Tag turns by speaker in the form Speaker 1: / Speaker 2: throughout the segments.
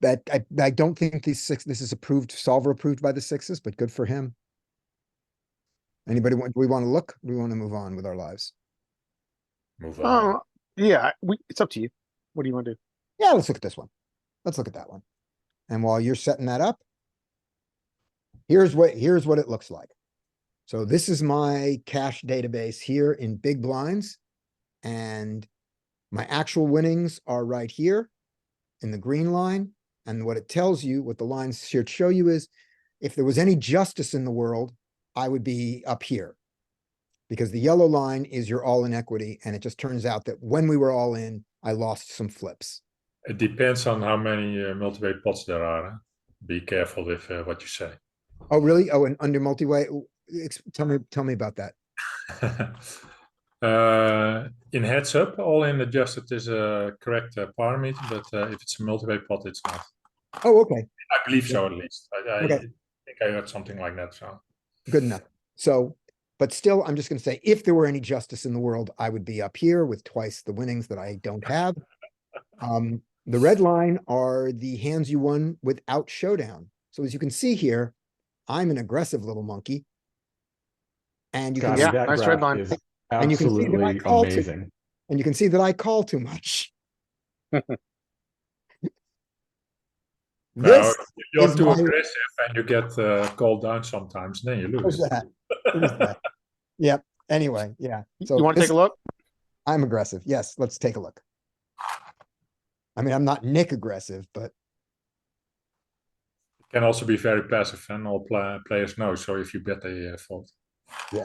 Speaker 1: that I, I don't think these six, this is approved, solver approved by the sixes, but good for him. Anybody want, do we want to look? Do We want to move on with our lives.
Speaker 2: Move on.
Speaker 3: Oh, yeah, we, it's up to you. What do you want to do?
Speaker 1: Yeah, let's look at this one. Let's look at that one. And while you're setting that up, here's what, here's what it looks like. So this is my cash database here in big blinds. And my actual winnings are right here in the green line. And what it tells you, what the lines here show you is if there was any justice in the world, I would be up here. Because the yellow line is your all in equity. And it just turns out that when we were all in, I lost some flips.
Speaker 2: It depends on how many uh, multi-way pots there are. huh? Be careful with uh, what you say.
Speaker 1: Oh, really? Oh, and under multi-way, w- ex- tell me, tell me about that.
Speaker 2: uh, in heads up, all in adjusted is a correct uh, parameter, but uh, if it's a multi-way pot, it's not.
Speaker 1: Oh, okay,
Speaker 2: I believe so, at least. I, I
Speaker 1: Okay.
Speaker 2: think I heard something like that. So
Speaker 1: good enough. So, but still, I'm just gonna say, if there were any justice in the world, I would be up here with twice the winnings that I don't have. Um, the red line are the hands you won without showdown. So as you can see here, I'm an aggressive little monkey. And you can,
Speaker 4: God,
Speaker 1: see-
Speaker 3: Yeah,
Speaker 4: that
Speaker 3: nice red
Speaker 4: graph
Speaker 3: line.
Speaker 4: is
Speaker 1: And you can see that I
Speaker 4: Absolutely
Speaker 1: called it.
Speaker 4: amazing.
Speaker 1: and you can see that I call too much.
Speaker 2: No,
Speaker 1: This
Speaker 2: if you're
Speaker 1: is
Speaker 2: too
Speaker 1: my-
Speaker 2: aggressive and you get uh, called down sometimes, then you
Speaker 1: was
Speaker 2: lose.
Speaker 1: that. It was that. Yep, anyway, yeah.
Speaker 3: You
Speaker 1: So
Speaker 3: want to
Speaker 1: this-
Speaker 3: take a look?
Speaker 1: I'm aggressive. Yes, let's take a look. I mean, I'm not Nick aggressive, but
Speaker 2: Can also be very passive, and all pla- players know. So if you bet, they uh, fold.
Speaker 3: You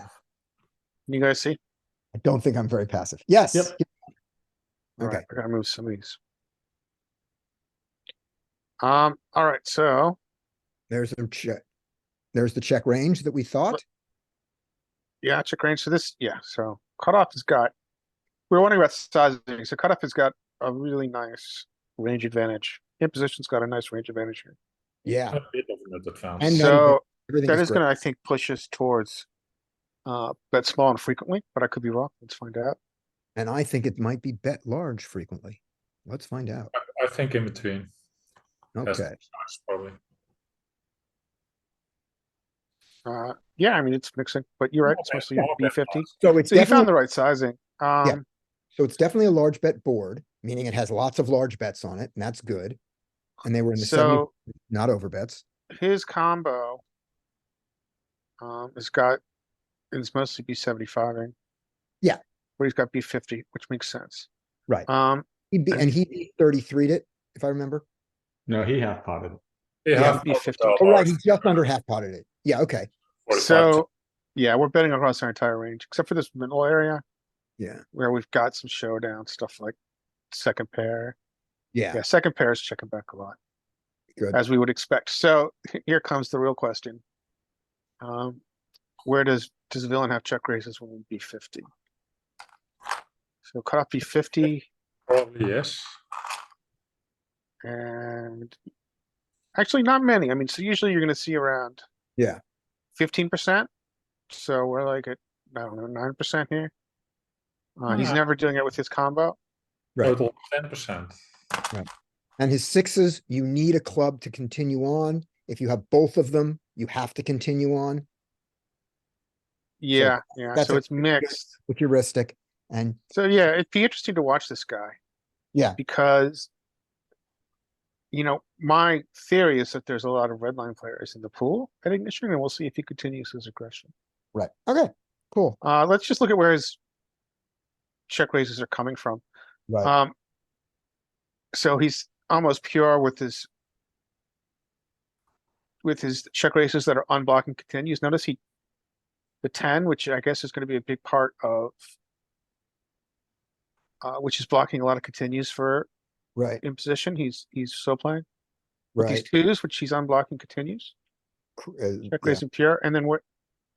Speaker 3: guys see?
Speaker 1: I don't think I'm very passive. Yes.
Speaker 4: Yep.
Speaker 3: All
Speaker 1: Okay.
Speaker 3: right, I gotta move some of these. Um, all right, so
Speaker 1: There's the check. There's the check range that we thought.
Speaker 3: yeah, check range. So this, yeah, so cutoff has got, we were wondering about sizing. So cutoff has got a really nice range advantage. Imposition's got a nice range advantage here.
Speaker 1: Yeah.
Speaker 2: A bit of an advance.
Speaker 1: And, uh,
Speaker 3: So
Speaker 1: everything
Speaker 3: that
Speaker 1: is
Speaker 3: is
Speaker 1: great.
Speaker 3: gonna, I think, push us towards uh, bet small and frequently, but I could be wrong. Let's find out.
Speaker 1: And I think it might be bet large frequently. Let's find out.
Speaker 2: I think in between. That's
Speaker 1: Okay.
Speaker 2: probably.
Speaker 3: Uh, yeah, I mean, it's mixing, but you're right. It's
Speaker 2: More
Speaker 3: mostly
Speaker 2: bet- more
Speaker 3: B
Speaker 2: bet
Speaker 3: fifty.
Speaker 2: pots.
Speaker 1: So it's
Speaker 3: So you found
Speaker 1: definitely,
Speaker 3: the right sizing. Um,
Speaker 1: so it's definitely a large bet board, meaning it has lots of large bets on it and that's good. And they were in the seventy,
Speaker 3: so
Speaker 1: not over bets.
Speaker 3: his combo. Um, has got, it's mostly B seventy-five.
Speaker 1: Yeah.
Speaker 3: But he's got B fifty, which makes sense.
Speaker 1: Right.
Speaker 3: Um,
Speaker 1: He'd be, and he thirty-three'd it, if I remember.
Speaker 4: No, he half potted.
Speaker 2: They
Speaker 1: Yeah,
Speaker 2: have
Speaker 3: be
Speaker 2: pots
Speaker 3: 50.
Speaker 2: that
Speaker 1: Oh,
Speaker 2: are
Speaker 1: right, he
Speaker 2: large,
Speaker 1: just under half potted it. Yeah, okay.
Speaker 2: 45.
Speaker 3: so, yeah, we're betting across our entire range, except for this middle area
Speaker 1: Yeah,
Speaker 3: where we've got some showdown stuff like second pair.
Speaker 1: yeah,
Speaker 3: Yeah, second pair is checking back a lot.
Speaker 1: Good.
Speaker 3: As we would expect. So here comes the real question. Um, where does, does villain have check raises when we B fifty? So cut off B fifty
Speaker 2: Probably yes.
Speaker 3: and actually not many. I mean, so usually you're gonna see around
Speaker 1: yeah.
Speaker 3: fifteen percent. So we're like at, I don't know, nine percent here. Uh, he's
Speaker 2: Yeah.
Speaker 3: never doing it with his combo.
Speaker 1: Right.
Speaker 2: Total ten percent.
Speaker 1: And his sixes, you need a club to continue on. If you have both of them, you have to continue on
Speaker 3: Yeah, yeah,
Speaker 1: that's
Speaker 3: so
Speaker 1: a-
Speaker 3: it's mixed.
Speaker 1: with heuristic. And
Speaker 3: So yeah, it'd be interesting to watch this guy.
Speaker 1: Yeah.
Speaker 3: Because you know, my theory is that there's a lot of red line players in the pool at ignition, and we'll see if he continues his aggression.
Speaker 1: right, okay, cool,
Speaker 3: Uh, let's just look at where his check raises are coming from.
Speaker 1: right,
Speaker 3: Um, so he's almost pure with his with his check raises that are unblocking continues. Notice he the ten, which I guess is going to be a big part of uh, which is blocking a lot of continues for
Speaker 1: right,
Speaker 3: imposition. He's he's so playing with
Speaker 1: right.
Speaker 3: these twos, which he's unblocking continues.
Speaker 1: cr- uh,
Speaker 3: Check
Speaker 1: yeah,
Speaker 3: raising pure, and then what?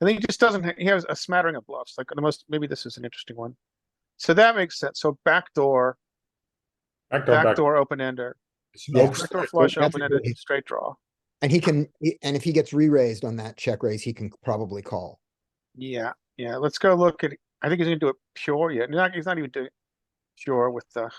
Speaker 3: I think he just doesn't. ha- He has a smattering of bluffs. Like the most. Maybe this is an interesting one. So that makes sense. So backdoor,
Speaker 2: I go back.
Speaker 3: backdoor open ender.
Speaker 2: It's an
Speaker 1: Yeah.
Speaker 2: open
Speaker 3: Backdoor
Speaker 2: straight.
Speaker 3: flush,
Speaker 1: that's a
Speaker 3: open ended,
Speaker 1: great-
Speaker 3: straight draw.
Speaker 1: And he can, he- and if he gets re-raised on that check raise, he can probably call.
Speaker 3: Yeah, yeah, let's go look at, I think he's gonna do it pure yet. Not, he's not even doing pure with the